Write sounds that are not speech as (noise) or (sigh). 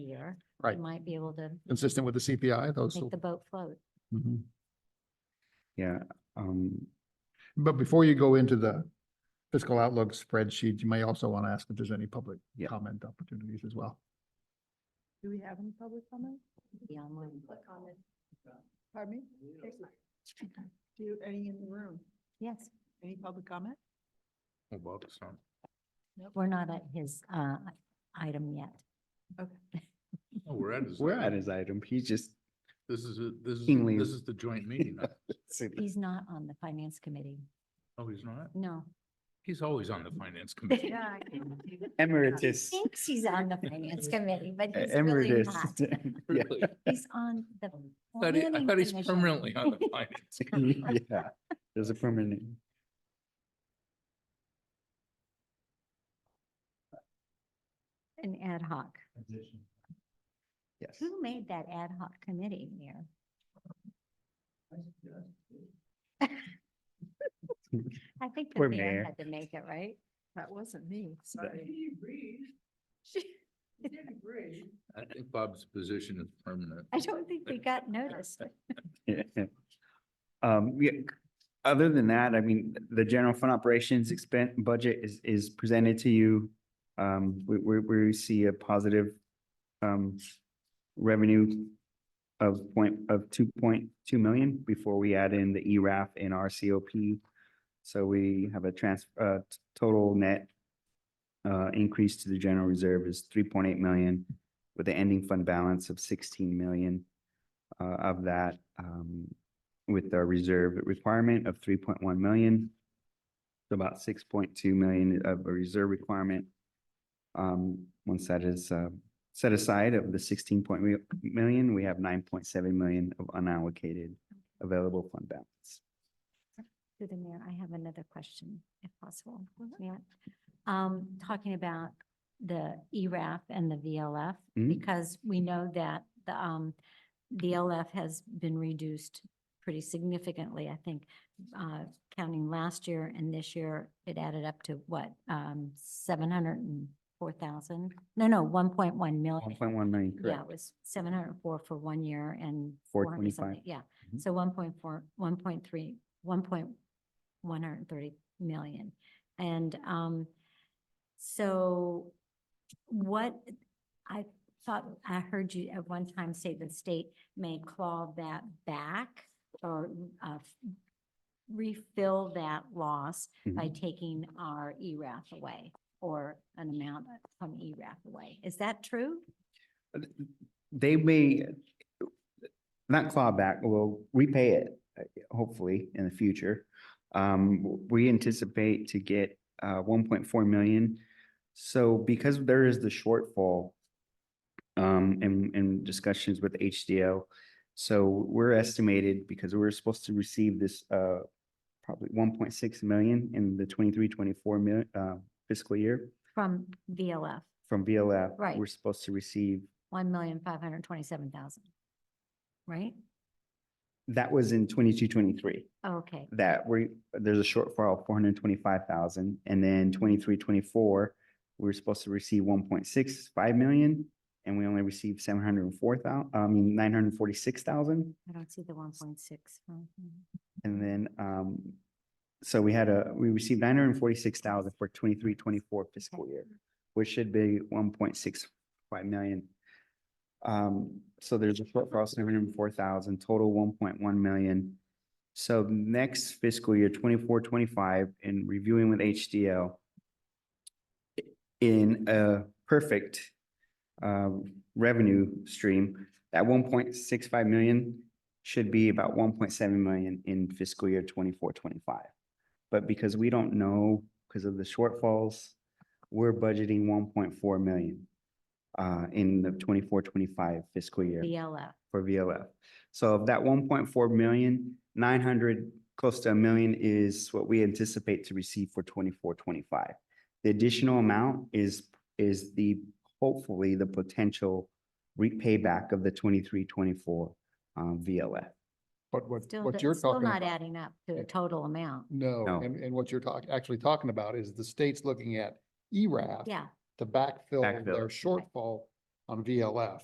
year. Right. We might be able to consistent with the CPI, those. make the boat float. Mhm. Yeah, um, But before you go into the fiscal outlook spreadsheet, you may also want to ask if there's any public Yeah. comment opportunities as well. Do we have any public comment? be online. Pardon me? Do you, any in the room? Yes, Any public comment? Oh, we're not at his uh, item yet. Oh, we're at his. we're item. at his item. He just, This is, a- this is, Kingly. this is the joint (laughs) meeting. huh? He's not on the finance committee. Oh, he's not? (laughs) No. He's always on the finance committee. emeritus, Uh, Thinks he's on the (laughs) finance committee, but E-, he's really emeritus. (laughs) not. Yeah, (laughs) Really? He's on the. Thought he- I planning thought he's commission. permanently (laughs) on the finance. (laughs) yeah, there's a permanent. An ad hoc. Yes. Who made that ad hoc committee, (laughs) Mayor? I think the Poor mayor mayor. had to make it, right? That wasn't me, sorry. I think Bob's position is permanent. I don't think we got noticed. Yeah. (laughs) Um, yeah, c- other than that, I mean, the general fund operations expense budget is, is presented to you. Um, we, we, we see a positive, um, revenue of point, of two point two million before we add in the E ERAF and our COP. So we have a trans, uh, t- total net uh, increase to the general reserve is three point eight million with the ending fund balance of sixteen million uh, of that, um, with our reserve requirement of three point one million. So about six point two million of a reserve requirement. Um, once that is, uh, set aside of the sixteen point million, we have nine point seven million of unallocated available fund balance. Through the mayor, I have another question, if possible. Yeah. Um, talking about the E ERAF and the VLF, Mhm. because we know that the, um, VLF has been reduced pretty significantly, I think. Uh, counting last year and this year, it added up to what, um, seven hundred and four thousand? No, no, one point one One million. point one million, Yeah, correct? it was seven hundred and four for one year and. 400 425. something. Yeah, Mhm. so one point four, one point three, one point one hundred and thirty million. And um, so what, I thought, I heard you at one time say the state may claw that back or uh, refill that loss by Mm-hmm. taking our E ERAF away or an amount from E ERAF away. Is that true? They may not claw back, we'll repay it, uh, hopefully in the future. Um, we anticipate to get uh one point four million. So because there is the shortfall um in in discussions with HDO, so we're estimated because we're supposed to receive this uh probably one point six million in the 23-24 mil- uh fiscal year From VLF, from VLF. Right. We're supposed to receive one million five hundred twenty-seven thousand. Right? That was in twenty-two, twenty-three, Okay, that we, there's a shortfall of four hundred and twenty-five thousand, and then twenty-three, twenty-four, we were supposed to receive one point six five million, and we only received seven hundred and four thousand. I mean, nine hundred and forty-six thousand, I don't see the one point six. and then, um, so we had a, we received nine hundred and forty-six thousand for twenty-three, twenty-four fiscal year, which should be one point six five million. Um, so there's a shortfall of seven hundred and four thousand, total one point one million. So next fiscal year, twenty-four, twenty-five, in reviewing with HDL, in a perfect, um, revenue stream, that one point six five million should be about one point seven million in fiscal year twenty-four, twenty-five. But because we don't know, because of the shortfalls, we're budgeting one point four million uh, in the 24-25 fiscal year VLF, for VLF. So of that one point four million, nine hundred, close to a million is what we anticipate to receive for 24-25. The additional amount is, is the, hopefully, the potential repayback of the 23-24 um, VLF. But what, still, what you're do- still talking not about, adding up to a total amount. no, No. and, and what you're talking, actually talking about is the state's looking at E ERAF Yeah, to backfill Backfill. their shortfall on VLF.